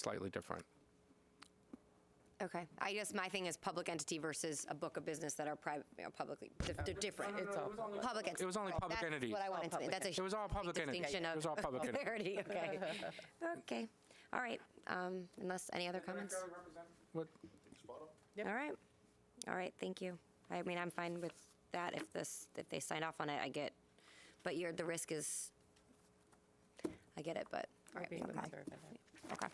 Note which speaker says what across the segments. Speaker 1: slightly different.
Speaker 2: Okay. I guess my thing is public entity versus a book of business that are private, publicly, di- di- different.
Speaker 1: It's all public.
Speaker 2: Public entity.
Speaker 1: It was only public entities.
Speaker 2: Oh, That's what I wanted to,
Speaker 3: public
Speaker 2: that's a.
Speaker 1: It was all public
Speaker 2: big
Speaker 1: entities.
Speaker 2: Distinction
Speaker 1: It was all public
Speaker 2: of
Speaker 1: entities.
Speaker 2: clarity, okay. Okay, all right, um, unless, any other comments?
Speaker 1: What-
Speaker 2: All right, all right, thank you. I mean, I'm fine with that if this, if they sign off on it, I get, but you're, the risk is, I get it, but, all right, we
Speaker 3: being
Speaker 2: can move on.
Speaker 3: conservative.
Speaker 2: Okay.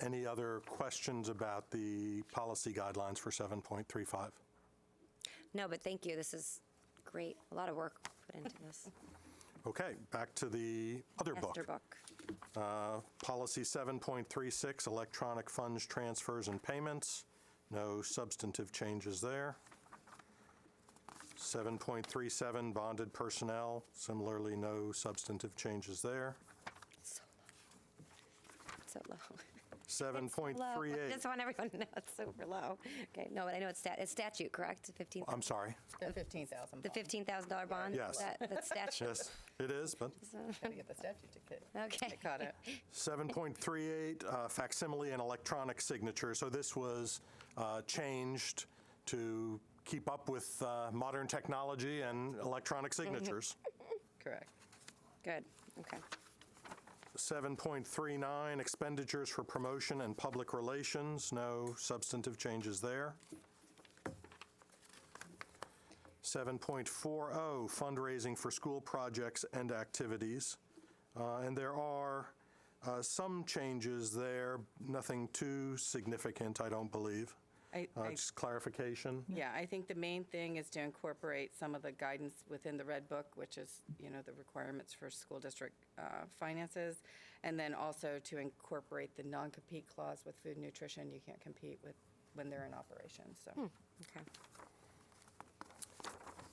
Speaker 4: Any other questions about the policy guidelines for 7.35?
Speaker 2: No, but thank you, this is great, a lot of work put into this.
Speaker 4: Okay, back to the other book.
Speaker 2: Master book.
Speaker 4: Uh, Policy 7.36, electronic funds transfers and payments. No substantive changes there. 7.37, bonded personnel. Similarly, no substantive changes there.
Speaker 2: So low. So low.
Speaker 4: 7.38.
Speaker 2: Just want everyone to know it's super low. Okay, no, but I know it's stat, it's statute, correct? Fifteen,
Speaker 4: I'm sorry.
Speaker 3: The 15,000.
Speaker 2: the fifteen thousand dollar bond?
Speaker 4: Yes.
Speaker 2: That, that's statute.
Speaker 4: Yes, it is, but
Speaker 3: Got to get the statute to get.
Speaker 2: Okay.
Speaker 3: I caught it.
Speaker 4: 7.38, uh, facsimile and electronic signature. So this was uh, changed to keep up with uh, modern technology and electronic signatures.
Speaker 3: Correct.
Speaker 2: Good, okay.
Speaker 4: 7.39, expenditures for promotion and public relations. No substantive changes there. 7.40, oh, fundraising for school projects and activities. Uh, And there are uh, some changes there, nothing too significant, I don't believe.
Speaker 5: I-
Speaker 4: Uh,
Speaker 5: I-
Speaker 4: Just clarification.
Speaker 5: Yeah, I think the main thing is to incorporate some of the guidance within the Red Book, which is, you know, the requirements for school district uh, finances, and then also to incorporate the non-compete clause with food and nutrition. You can't compete with, when they're in operation,
Speaker 2: Hmm.
Speaker 5: so.
Speaker 2: Okay.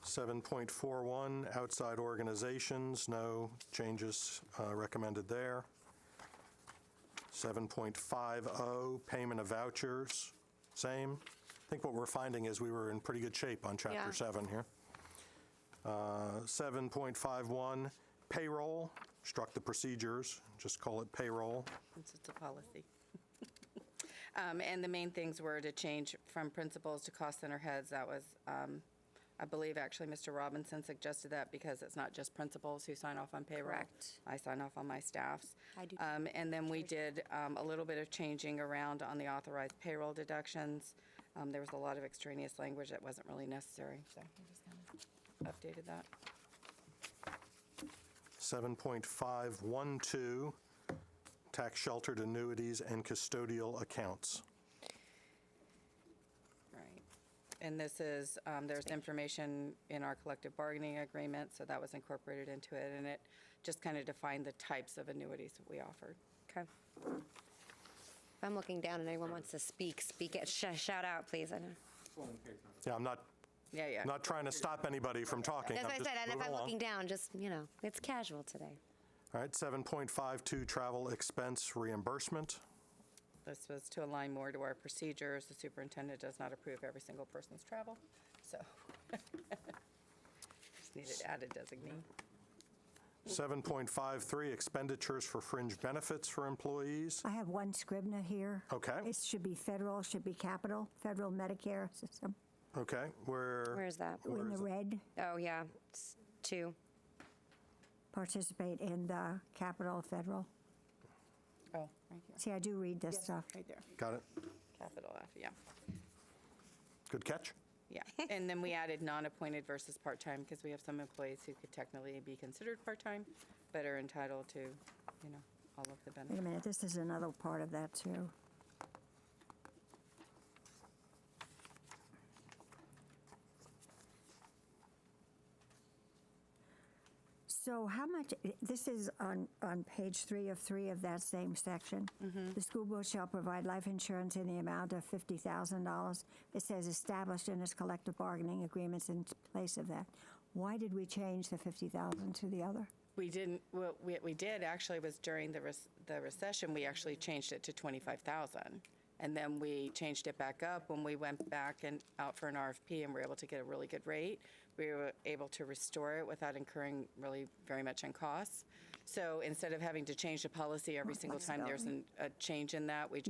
Speaker 4: 7.41, outside organizations, no changes uh, recommended there. 7.50, oh, payment of vouchers, same. I think what we're finding is we were in pretty good shape on
Speaker 2: Yeah.
Speaker 4: Chapter 7 here. Uh, 7.51, payroll, struck the procedures, just call it payroll.
Speaker 5: Since it's a policy. Um, And the main things were to change from principals to cost center heads. That was, um, I believe, actually, Mr. Robinson suggested that because it's not just principals who sign off on payroll.
Speaker 2: Correct.
Speaker 5: I sign off on my staffs.
Speaker 2: I do too.
Speaker 5: Um, And then we did um, a little bit of changing around on the authorized payroll deductions. Um, There was a lot of extraneous language that wasn't really necessary, so I just kind of updated that.
Speaker 4: 7.512, tax sheltered annuities and custodial accounts.
Speaker 5: Right. And this is, um, there's information in our collective bargaining agreement, so that was incorporated into it, and it just kind of defined the types of annuities that we offered.
Speaker 2: Okay. If I'm looking down and anyone wants to speak, speak it, Sh- shout out, please. I know.
Speaker 4: Yeah, I'm not
Speaker 5: Yeah, yeah.
Speaker 4: Not trying to stop anybody from talking.
Speaker 2: That's
Speaker 4: I'm
Speaker 2: what I
Speaker 4: just
Speaker 2: said, and if
Speaker 4: moving
Speaker 2: I'm
Speaker 4: along.
Speaker 2: looking down, just, you know, it's casual today.
Speaker 4: All right, 7.52, travel expense reimbursement.
Speaker 5: This was to align more to our procedures. The superintendent does not approve every single person's travel, so. Just needed added designee.
Speaker 4: 7.53, expenditures for fringe benefits for employees.
Speaker 6: I have one Scribner here.
Speaker 4: Okay.
Speaker 6: It should be federal, should be capital, federal Medicare system,
Speaker 4: Okay,
Speaker 2: Where
Speaker 4: where,
Speaker 2: is that?
Speaker 6: in the red,
Speaker 2: Oh, yeah, it's two.
Speaker 6: participate in the capital, federal.
Speaker 5: Oh, right here.
Speaker 6: See, I do read this stuff.
Speaker 5: Right there.
Speaker 4: got it.
Speaker 5: Capital F, yeah.
Speaker 4: Good catch.
Speaker 5: Yeah, and then we added non-appointed versus part-time, because we have some employees who could technically be considered part-time, but are entitled to, you know, all of the
Speaker 6: Wait a
Speaker 5: benefits.
Speaker 6: minute, this is another part of that, too. So how much, this is on, on page three of three of that same section. The school board shall provide life insurance in the amount of $50,000. It says established in its collective bargaining agreements in place of that. Why did we change the 50,000 to the other?
Speaker 5: We didn't, what we, we did actually was during the, rec- the recession, we actually changed it to 25,000. And then we changed it back up when we went back and out for an RFP and were able to get a really good rate. We were able to restore it without incurring really very much in costs. So instead of having to change the policy every single time there's an- a change in that, we just